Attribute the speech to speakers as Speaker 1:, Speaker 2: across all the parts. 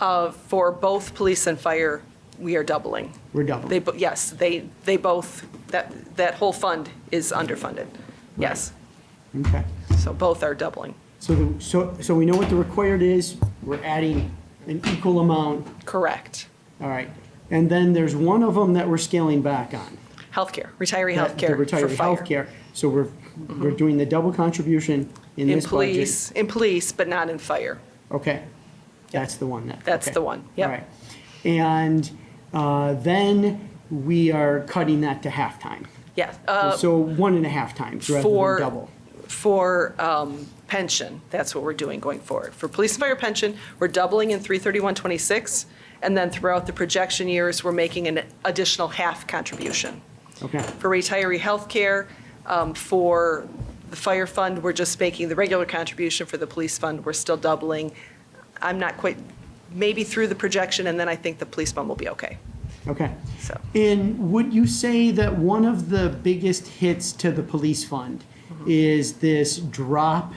Speaker 1: of, for both police and fire, we are doubling.
Speaker 2: We're
Speaker 1: They,
Speaker 2: doubling.
Speaker 1: bo- yes, they, they both, that, that whole fund is underfunded. Yes,
Speaker 2: Okay.
Speaker 1: so both are doubling.
Speaker 2: So, the- so, so we know what the required is, we're adding an equal amount,
Speaker 1: Correct.
Speaker 2: all right. And then there's one of them that we're scaling back on.
Speaker 1: Healthcare, retiree
Speaker 2: that- the
Speaker 1: healthcare for
Speaker 2: retiree
Speaker 1: fire.
Speaker 2: Healthcare, so we're, we're doing the double contribution in
Speaker 1: In
Speaker 2: this budget.
Speaker 1: police, in police, but not in fire.
Speaker 2: Okay, that's the one that.
Speaker 1: That's
Speaker 2: okay.
Speaker 1: the one, yep.
Speaker 2: All right. And uh, then we are cutting that to halftime.
Speaker 1: Yes. uh,
Speaker 2: So one and a half times rather
Speaker 1: for-
Speaker 2: than double.
Speaker 1: For um, pension, that's what we're doing going forward. For police and fire pension, we're doubling in 33126, and then throughout the projection years, we're making an additional half contribution.
Speaker 2: Okay,
Speaker 1: For retiree healthcare, um, for the fire fund, we're just making the regular contribution. For the police fund, we're still doubling. I'm not quite, maybe through the projection, and then I think the police fund will be okay,
Speaker 2: okay.
Speaker 1: so.
Speaker 2: And would you say that one of the biggest hits to the police fund
Speaker 1: Mm-hmm.
Speaker 2: is this drop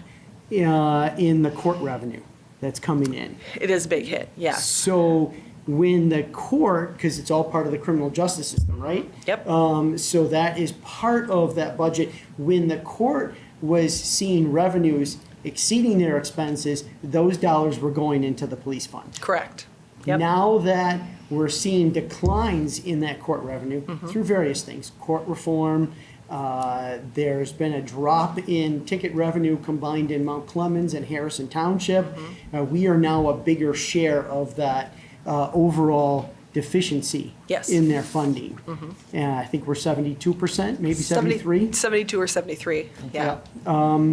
Speaker 2: uh, in the court revenue that's coming in?
Speaker 1: It is a big hit, yes.
Speaker 2: So when the court, because it's all part of the criminal justice system, right?
Speaker 1: Yep.
Speaker 2: Um, so that is part of that budget. When the court was seeing revenues exceeding their expenses, those dollars were going into the police fund.
Speaker 1: Correct. Yep.
Speaker 2: Now that we're seeing declines in that court revenue
Speaker 1: Mm-hmm.
Speaker 2: through various things, court reform, uh, there's been a drop in ticket revenue combined in Mount Clemens and Harrison Township.
Speaker 1: Mm-hmm.
Speaker 2: Uh, we are now a bigger share of that uh, overall deficiency
Speaker 1: Yes. Mm-hmm.
Speaker 2: in their funding. And I think we're 72%, maybe 73.
Speaker 1: 72 or 73, yeah.
Speaker 2: Um,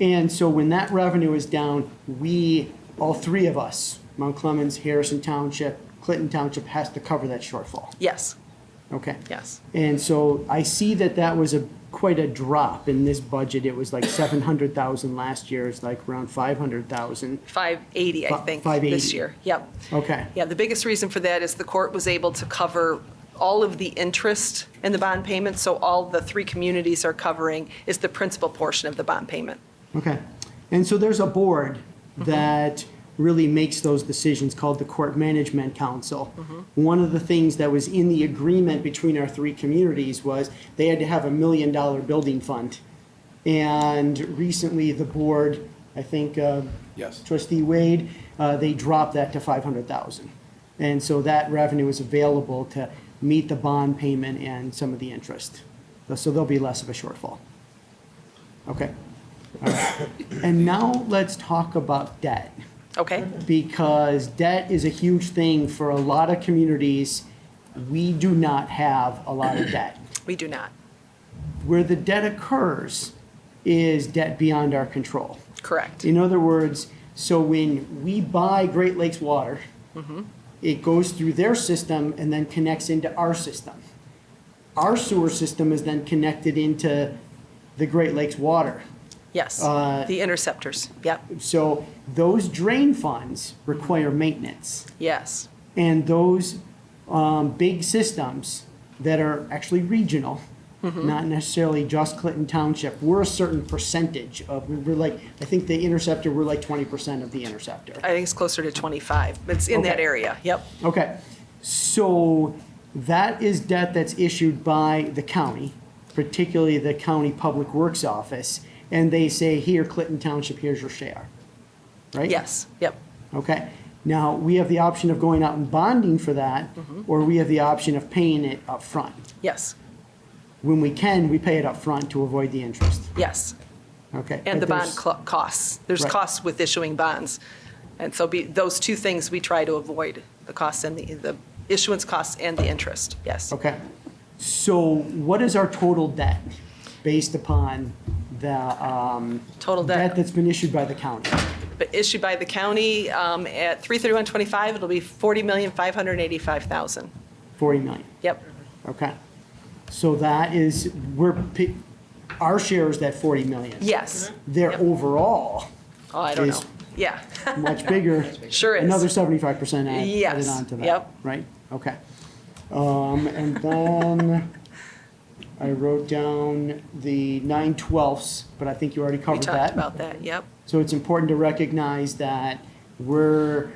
Speaker 2: And so when that revenue is down, we, all three of us, Mount Clemens, Harrison Township, Clinton Township, has to cover that shortfall.
Speaker 1: Yes,
Speaker 2: Okay.
Speaker 1: yes.
Speaker 2: And so I see that that was a, quite a drop in this budget. It was like 700,000 last year, it's like around 500,000.
Speaker 1: 580, I
Speaker 2: Fi-
Speaker 1: think,
Speaker 2: 580.
Speaker 1: this year. Yep.
Speaker 2: Okay.
Speaker 1: Yeah, the biggest reason for that is the court was able to cover all of the interest in the bond payment, so all the three communities are covering is the principal portion of the bond payment.
Speaker 2: Okay. And so there's a board that really makes those decisions called the Court Management Council. One of the things that was in the agreement between our three communities was they had to have a million dollar building fund. And recently, the board, I think uh,
Speaker 3: Yes.
Speaker 2: trustee Wade, uh, they dropped that to 500,000. And so that revenue is available to meet the bond payment and some of the interest. So there'll be less of a shortfall. Okay. And now let's talk about debt,
Speaker 1: Okay?
Speaker 2: because debt is a huge thing for a lot of communities. We do not have a lot of debt.
Speaker 1: We do not.
Speaker 2: Where the debt occurs is debt beyond our control.
Speaker 1: Correct.
Speaker 2: In other words, so when we buy Great Lakes water, it goes through their system and then connects into our system. Our sewer system is then connected into the Great Lakes water.
Speaker 1: Yes.
Speaker 2: uh,
Speaker 1: The interceptors, yep,
Speaker 2: So those drain funds require maintenance.
Speaker 1: yes,
Speaker 2: And those um, big systems that are actually regional, not necessarily just Clinton Township, we're a certain percentage of, we're like, I think the interceptor, we're like 20% of the interceptor.
Speaker 1: I think it's closer to 25. It's in that
Speaker 2: Okay.
Speaker 1: area, yep,
Speaker 2: Okay, so that is debt that's issued by the county, particularly the county public works office, and they say, here, Clinton Township, here's your share, right?
Speaker 1: yes, yep,
Speaker 2: Okay. Now, we have the option of going out and bonding for that,
Speaker 1: Mm-hmm.
Speaker 2: or we have the option of paying it up front.
Speaker 1: yes,
Speaker 2: When we can, we pay it up front to avoid the interest.
Speaker 1: yes.
Speaker 2: Okay.
Speaker 1: And the
Speaker 2: But
Speaker 1: bond
Speaker 2: there's-
Speaker 1: cl- costs. There's
Speaker 2: Right.
Speaker 1: costs with issuing bonds. And so be, those two things we try to avoid, the costs and the, the issuance costs and the interest, yes.
Speaker 2: Okay. So what is our total debt based upon the, um,
Speaker 1: Total
Speaker 2: debt
Speaker 1: debt,
Speaker 2: that's been issued by the county?
Speaker 1: but issued by the county, um, at 33125, it'll be 40,585,000.
Speaker 2: 40 million.
Speaker 1: Yep,
Speaker 2: Okay. So that is, we're, pi- our share is that 40 million.
Speaker 1: yes.
Speaker 2: Their
Speaker 1: Yep.
Speaker 2: overall
Speaker 1: Oh, I don't
Speaker 2: Is-
Speaker 1: know. Yeah,
Speaker 2: much bigger.
Speaker 1: Sure is.
Speaker 2: Another seventy-five percent added
Speaker 1: Yes,
Speaker 2: on to that.
Speaker 1: yep.
Speaker 2: Right, okay. Um, and then I wrote down the nine twelfths, but I think you already
Speaker 1: we
Speaker 2: covered
Speaker 1: talked
Speaker 2: that.
Speaker 1: about that, yep,
Speaker 2: So it's important to recognize that we're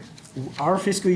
Speaker 2: Our fiscal